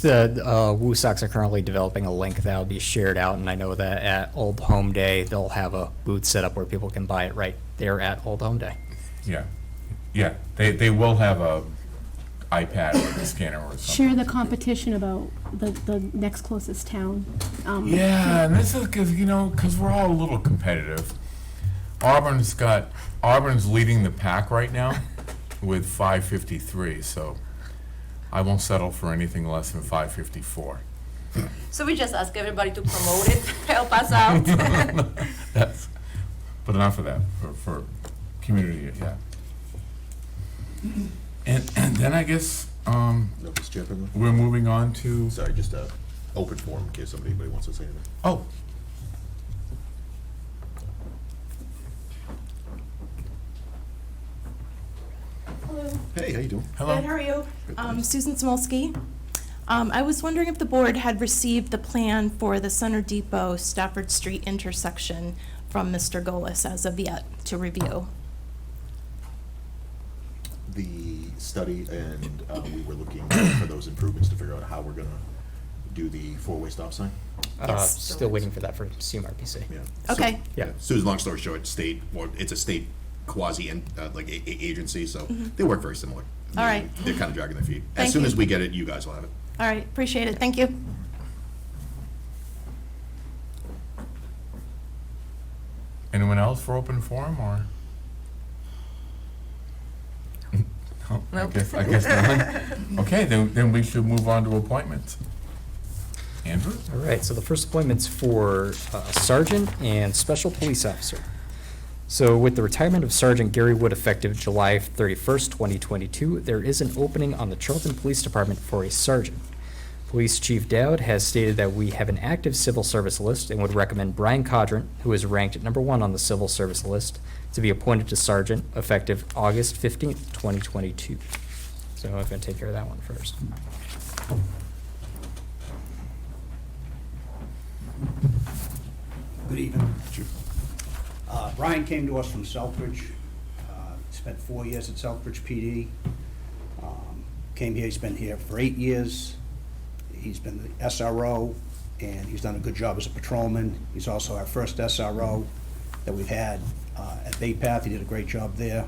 The uh, Woosocks are currently developing a link that'll be shared out, and I know that at Old Home Day, they'll have a booth set up where people can buy it right there at Old Home Day. Yeah, yeah, they, they will have a iPad or a scanner or something. share the competition about the, the next closest town. Um, Yeah, and this is, cause, you know, cause we're all a little competitive. Auburn's got, Auburn's leading the pack right now with five fifty-three, so I won't settle for anything less than five fifty-four. So we just ask everybody to promote it, help us out. That's, but enough of that, for, for community, yeah. And, and then I guess, um, No, Mr. Chairman, we're moving on to, sorry, just a open forum in case somebody anybody wants to say anything. oh, Hello. Hey, how you doing? hello. Good, how are you? Um, Susan Smolsky. Um, I was wondering if the board had received the plan for the Center Depot Stafford Street intersection from Mr. Golis as of yet to review. The study, and uh, we were looking for those improvements to figure out how we're gonna do the four-way stop sign. Uh, Yes. still waiting for that from CMRPC. Yeah. Okay, Yeah. Susan, long story short, state, well, it's a state quasi, and, uh, like, a, a- agency, so they work very similar. Mm-hmm. All right. They're kind of dragging their feet. As Thank soon you. as we get it, you guys will have it. all right, appreciate it, thank you. Anyone else for open forum or? No, Oh, I guess, I guess not. Okay, then, then we should move on to appointments. Andrew? All right, so the first appointment's for uh, Sergeant and Special Police Officer. So with the retirement of Sergeant Gary Wood effective July 31st, 2022, there is an opening on the Charlton Police Department for a sergeant. Police Chief Dowd has stated that we have an active civil service list and would recommend Brian Codran, who is ranked at number one on the civil service list, to be appointed to sergeant effective August 15th, 2022. So I'm going to take care of that one first. Good evening. Uh, Brian came to us from Southbridge, uh, spent four years at Southbridge PD. Um, Came here, he's been here for eight years. He's been the SRO, and he's done a good job as a patrolman. He's also our first SRO that we've had uh, at Bay Path. He did a great job there.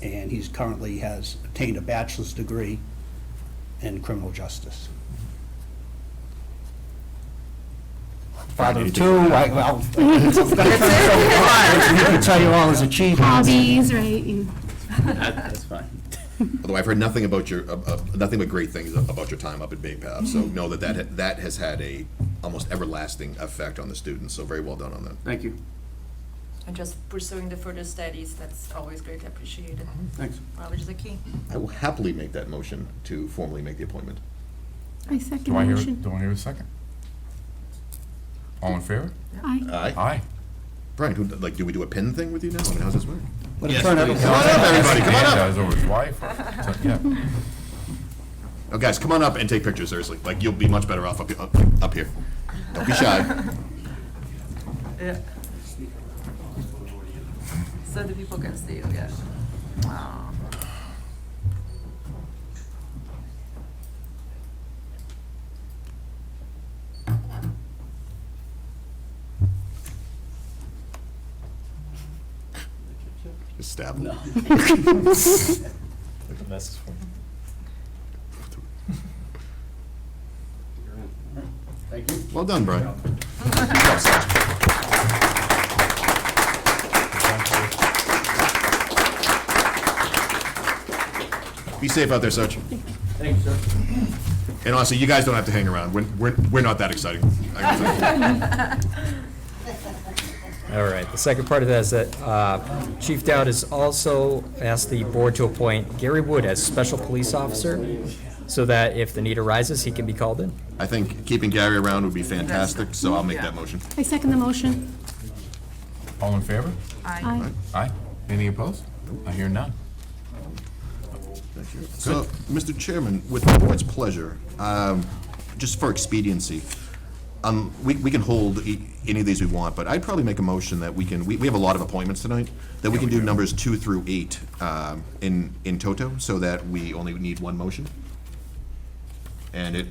And he's currently has obtained a bachelor's degree in criminal justice. Father of two, I, well, I can tell you all his achievements. Hobbies, right? and- That's fine. Although I've heard nothing about your, uh, uh, nothing but great things about your time up at Bay Path, so know that that, ha- that has had a almost everlasting effect on the students, so very well done on that. Thank you. And just pursuing the further studies, that's always greatly appreciated. Thanks. Knowledge is the key. I will happily make that motion to formally make the appointment. I second Do I hear, motion. do I hear a second? All in favor? Aye. Aye. Aye. Brian, who, like, do we do a pen thing with you now? I mean, how's this work? Come on up, everybody, come on up. That was over his wife, so, yeah. Oh, guys, come on up and take pictures, seriously. Like, you'll be much better off up, up, up here. Don't be shy. So the people can see it, yeah. Wow. Just stab him. Thank you. Well done, Brian. Be safe out there, Sarge. Thanks, sir. And honestly, you guys don't have to hang around. We're, we're, we're not that exciting. I can tell you. All right, the second part of that is that uh, Chief Dowd has also asked the board to appoint Gary Wood as special police officer so that if the need arises, he can be called in. I think keeping Gary around would be fantastic, so I'll make that motion. I second the motion. All in favor? Aye. Aye. Any opposed? I hear none. So, Mr. Chairman, with the board's pleasure, um, just for expediency, um, we, we can hold e- any of these we want, but I'd probably make a motion that we can, we, we have a lot of appointments tonight, that we can do numbers two through eight, um, in, in toto, so that we only need one motion. And it,